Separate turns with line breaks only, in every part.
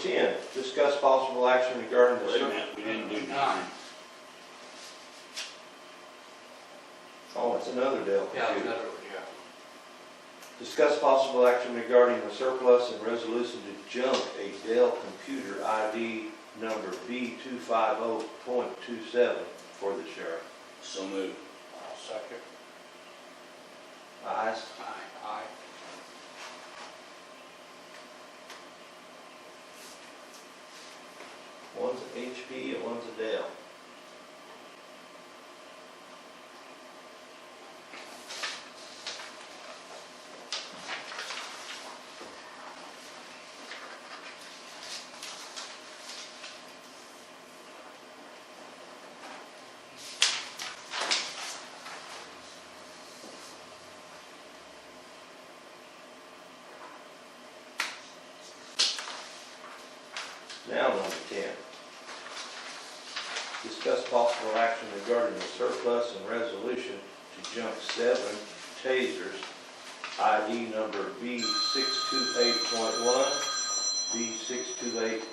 ten, discuss possible action regarding the
Wait a
circle.
minute, we didn't do nine.
Nine.
Oh, it's another deal.
Yeah, another, yeah.
Discuss possible action regarding the surplus and resolution to junk a Dell computer ID number B two five oh point two seven for the sheriff.
So moved.
I'll Uh, second.
Ayes?
Aye. Aye.
One's a HP and one's a Dell. Now number ten. Discuss possible action regarding the surplus and resolution to junk seven tasers, ID number B six two eight point one, B six two eight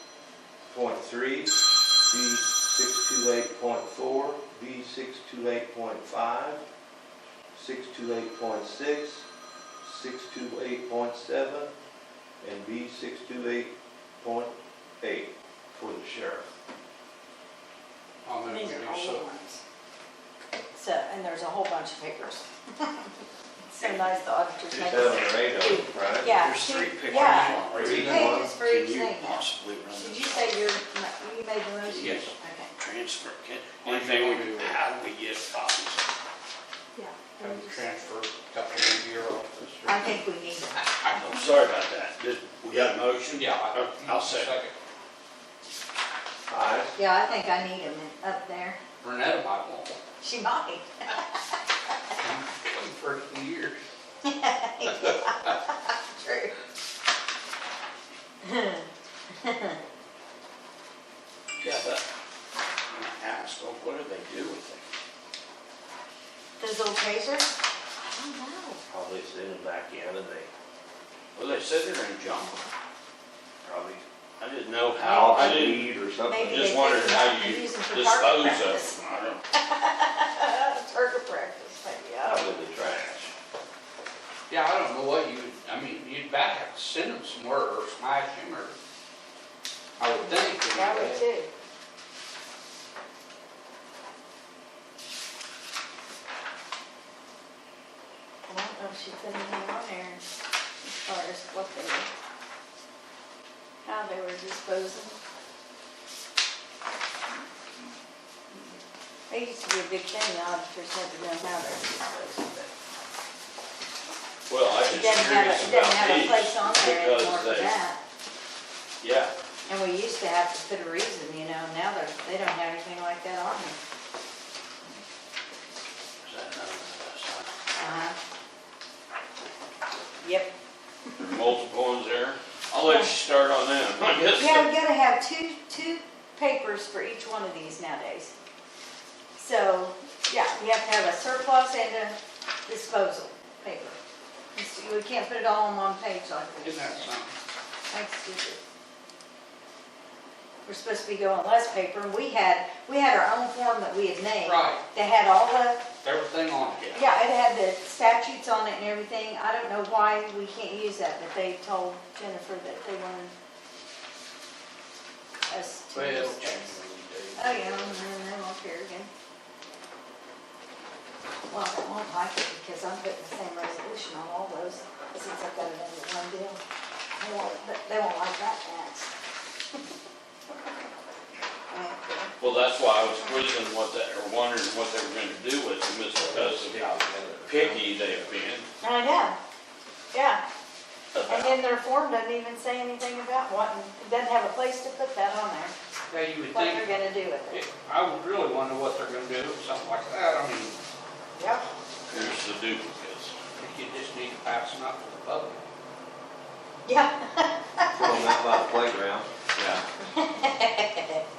point three, B six two eight point four, B six two eight point five, six two eight point six, six two eight point seven, and B six two eight point eight for the sheriff.
I'll move
These
we do
are all the
so.
ones. So, and there's a whole bunch of papers. So nice the auditors make
Seven
us.
or eight of them, right?
Yeah.
There's three
two-
pictures.
Yeah,
Right.
two
Read one.
pages for each
Can you
thing.
possibly run
Did you
this
say your, you made your motion?
Yes.
Okay.
transfer? Can, anything we do, how do we get copies?
Yeah.
Have the transfer up to your office. or-
I think we need them.
I'm sorry about that. Just, we got a motion?
Yeah. I-
Oh, I'll second.
Ayes?
Yeah, I think I need them up there.
Renetta might want one.
She might.
Waiting for it in years.
True.
Yeah, but I asked, well, what do they do with it?
Those old tasers? I don't know.
Probably sitting back in and they
Well, they said they're in junk.
probably
I didn't know how,
out
I didn't,
weed or something.
Maybe
I
they
just
pick
wondered
them
how
up and
you
use them for
dispose
target
of
practice.
them. I don't,
Target practice, maybe, I don't know.
Out of the trash.
Yeah, I don't know what you, would I mean, you'd back have to send them somewhere or smash them or, I would think. you
That would
know.
too. I don't know if she put anything on there as far as what they were, how they were disposing. They used to be a big thing, the auditors had to know how they're disposing, but
well, I
it
just
doesn't have, a-
curious
it doesn't have a place on
about these
there anymore
because
for
they,
that.
yeah,
And we used to have to put a reason, you know, now they're, they don't have anything like that on them.
Is that another one?
Uh-huh. Yep.
There are multiple ones there. I'll let you start on them. I guess.
Yeah, we gotta have two, two papers for each one of these nowadays. So, yeah, we have to have a surplus and a disposal paper. It's- We can't put it all on one page like this.
Isn't that something?
That's stupid. We're supposed to be going less paper, and we had, we had our own form that we had made.
Right.
That had all the
Everything on it.
Yeah, it had the statutes on it and everything. I don't know why we can't use that, but they told Jennifer that they wanted us to
Well,
use
it'll change
this.
when
Oh,
you do.
yeah, and then they won't care again. Well, they won't like it because I'm putting the same resolution on all those since I've got it under one deal. They won't, but they won't like that tax. uh,
Well, that's why I was quizzing what that, or wondering what they were gonna do with them, is because of how picky they've been.
I know, yeah. And
about-
then their form doesn't even say anything about wanting, it doesn't have a place to put that on there,
Yeah, you would
what they're
think,
gonna do with it.
it- I would really wonder what they're gonna do with something like that. I mean,
Yep.
Here's the duplicates.
if you just need to pass them out to the public.
Yeah.
Throw them out by the playground.
Yeah.
Well,